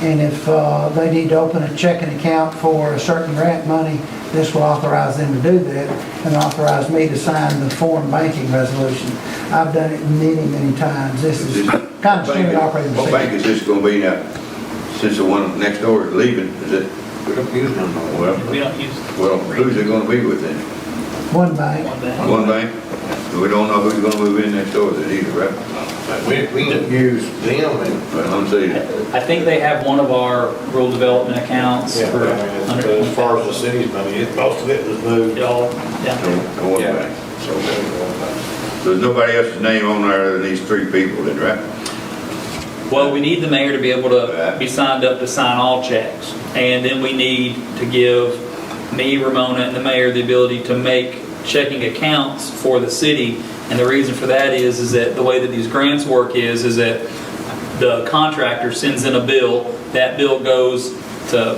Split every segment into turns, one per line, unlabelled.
And if uh, they need to open a checking account for a certain grant money, this will authorize them to do that and authorize me to sign the foreign banking resolution. I've done it many, many times. This is kind of standard operating
What bank
procedure.
is this gonna be now, since the one next door is leaving, is it,
We don't use them no more.
well,
We don't use
well, who's it gonna be with then?
One bank.
one bank.
One bank? We don't know who's gonna move in next door then either, right?
But We, we don't use them and.
But I'm saying,
I think they have one of our rural development accounts
Yeah,
for
but I mean, it's- but as far as the
100.
city's money, it- most of it was moved.
It all,
no,
yeah.
no one
Yeah.
bank.
So, uh,
So There's nobody else's name on there other than these three people then, right?
Well, we need the mayor to be able to
Right.
be signed up to sign all checks. And then we need to give me, Ramona, and the mayor the ability to make checking accounts for the city. And the reason for that is, is that the way that these grants work is, is that the contractor sends in a bill, that bill goes to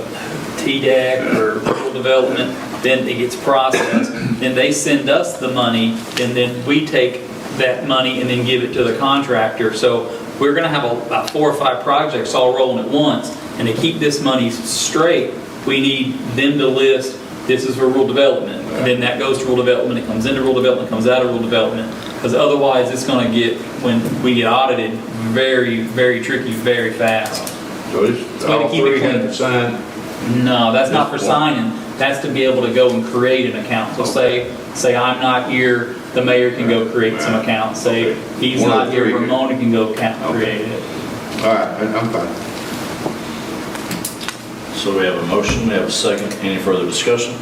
TDEC E or rural development, then it gets processed, then they send us the money, and then we take that money and then give it to the contractor. So we're gonna have a- about four or five projects all rolling at once, and to keep this money straight, we need them to list, this is for rural development, and then that goes to rural development, it comes into rural development, comes out of rural development, because otherwise, it's gonna get, when we get audited, very, very tricky, very fast.
So this,
a way to
all
keep it
three
clean.
have to sign.
No, that's not for signing, that's to be able to go and create an account. So say, say I'm not here, the mayor can go create some accounts, say he's
One of
not
the
here,
three.
Ramona can go account
Okay.
create it.
All right, I- I'm fine.
So we have a motion, we have a second. Any further discussion?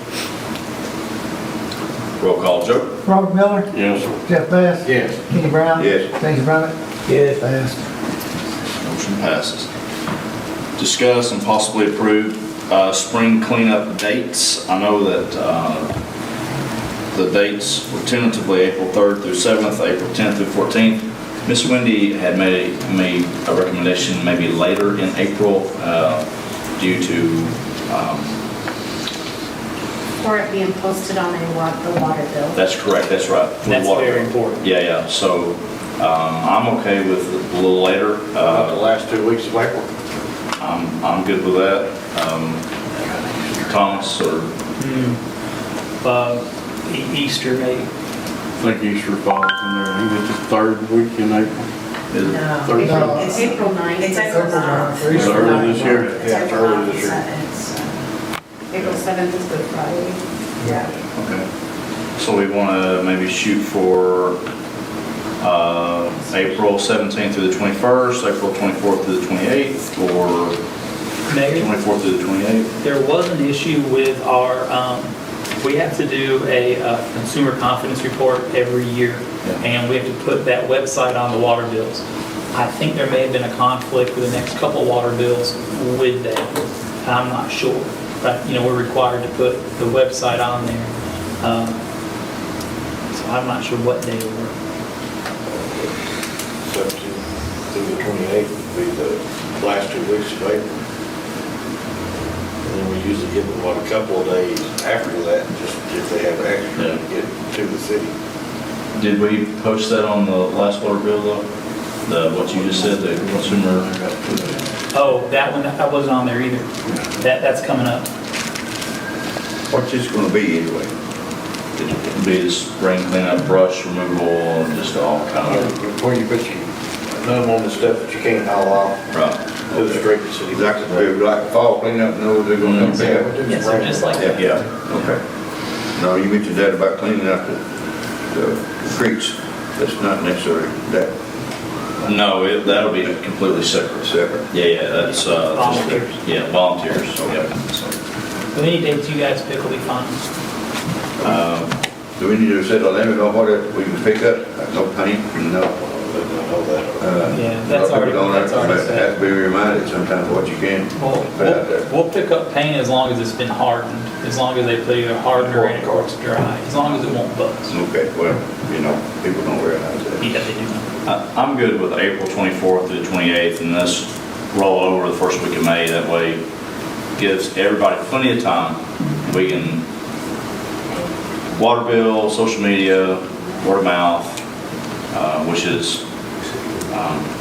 Roll call, Joe?
Robert Miller,
Yes.
Jeff Bass.
Yes.
Kenny Brown.
Yes.
James Brummett. Yes. Bass.
Motion passes. Discuss and possibly approve uh, spring cleanup dates. I know that uh, the dates were tentatively April 3rd through 7th, April 10th through 14th. Miss Wendy had made made a recommendation maybe later in April uh, due to
Or it being posted on a wa- the water bill.
That's correct, that's right. for the
That's
water.
very important.
Yeah, yeah, so um, I'm okay with a little later.
About the
Uh,
last two weeks of April.
I'm, I'm good with that. Um, Thomas or
Hmm. Uh, E- Easter, maybe.
I think Easter falls in there, I think it's the third week in April.
is
No,
Thursday.
Uh,
April- it's April 9th.
It's April 9th.
Is it early this year?
It's
Yeah, it's
April
early
ninth,
this year.
so
April 7th is Good Friday.
it's-
okay. So we want to maybe shoot for uh, April 17th through the 21st, April 24th through the 28th, or
Maybe.
24th through the 28th?
There was an issue with our, um, we have to do a uh, consumer confidence report every year,
Yeah.
and we have to put that website on the water bills. I think there may have been a conflict with the next couple water bills with that. I'm not sure, but, you know, we're required to put the website on there. Um, So I'm not sure what day it was.
Seventeenth through the twenty-eighth would be the last two weeks of April. And then we usually give them, what, a couple of days after that, just if they have extra to
Yeah.
get to the city.
Did we post that on the last water bill though? The, what you just said, the consumer?
Oh, that one, that wasn't on there either. That, that's coming up.
What's this gonna be anyway?
It'd be the spring cleanup, brush removal, and just all kind of,
Before you put your thumb on the stuff that you can't haul off,
right,
to the straight to city.
Like, like fall cleanup, no, they're gonna come
Yeah,
back?
we do
Yes, they're
spring.
just like-
Yeah,
yeah.
okay. No, you mentioned that about cleaning up the, the creeks, that's not necessarily that
No, it- that'll be completely separate.
separate.
Yeah, yeah, that's, uh. just-
Volunteers.
Yeah, volunteers, so, yeah. so.
But Any dates you guys pick will be fine.
Do we need to set a limit on what it- we can pick up? Like No paint, no,
All that.
uh.
Yeah, that's
no
already-
people on
that's
there,
already
but
set. Oh,
Have to be reminded sometimes what you can
Well,
put out there.
we'll, we'll pick up paint as long as it's been hardened, as long as they put either hardened or in it's dry, as long as it won't buzz.
Okay, well, you know, people don't realize that.
Yeah, they do.
I- I'm good with April 24th through the 28th, and let's roll over the first week of May. That way gives everybody plenty of time. We can, water bill, social media, word of mouth, uh, which is um,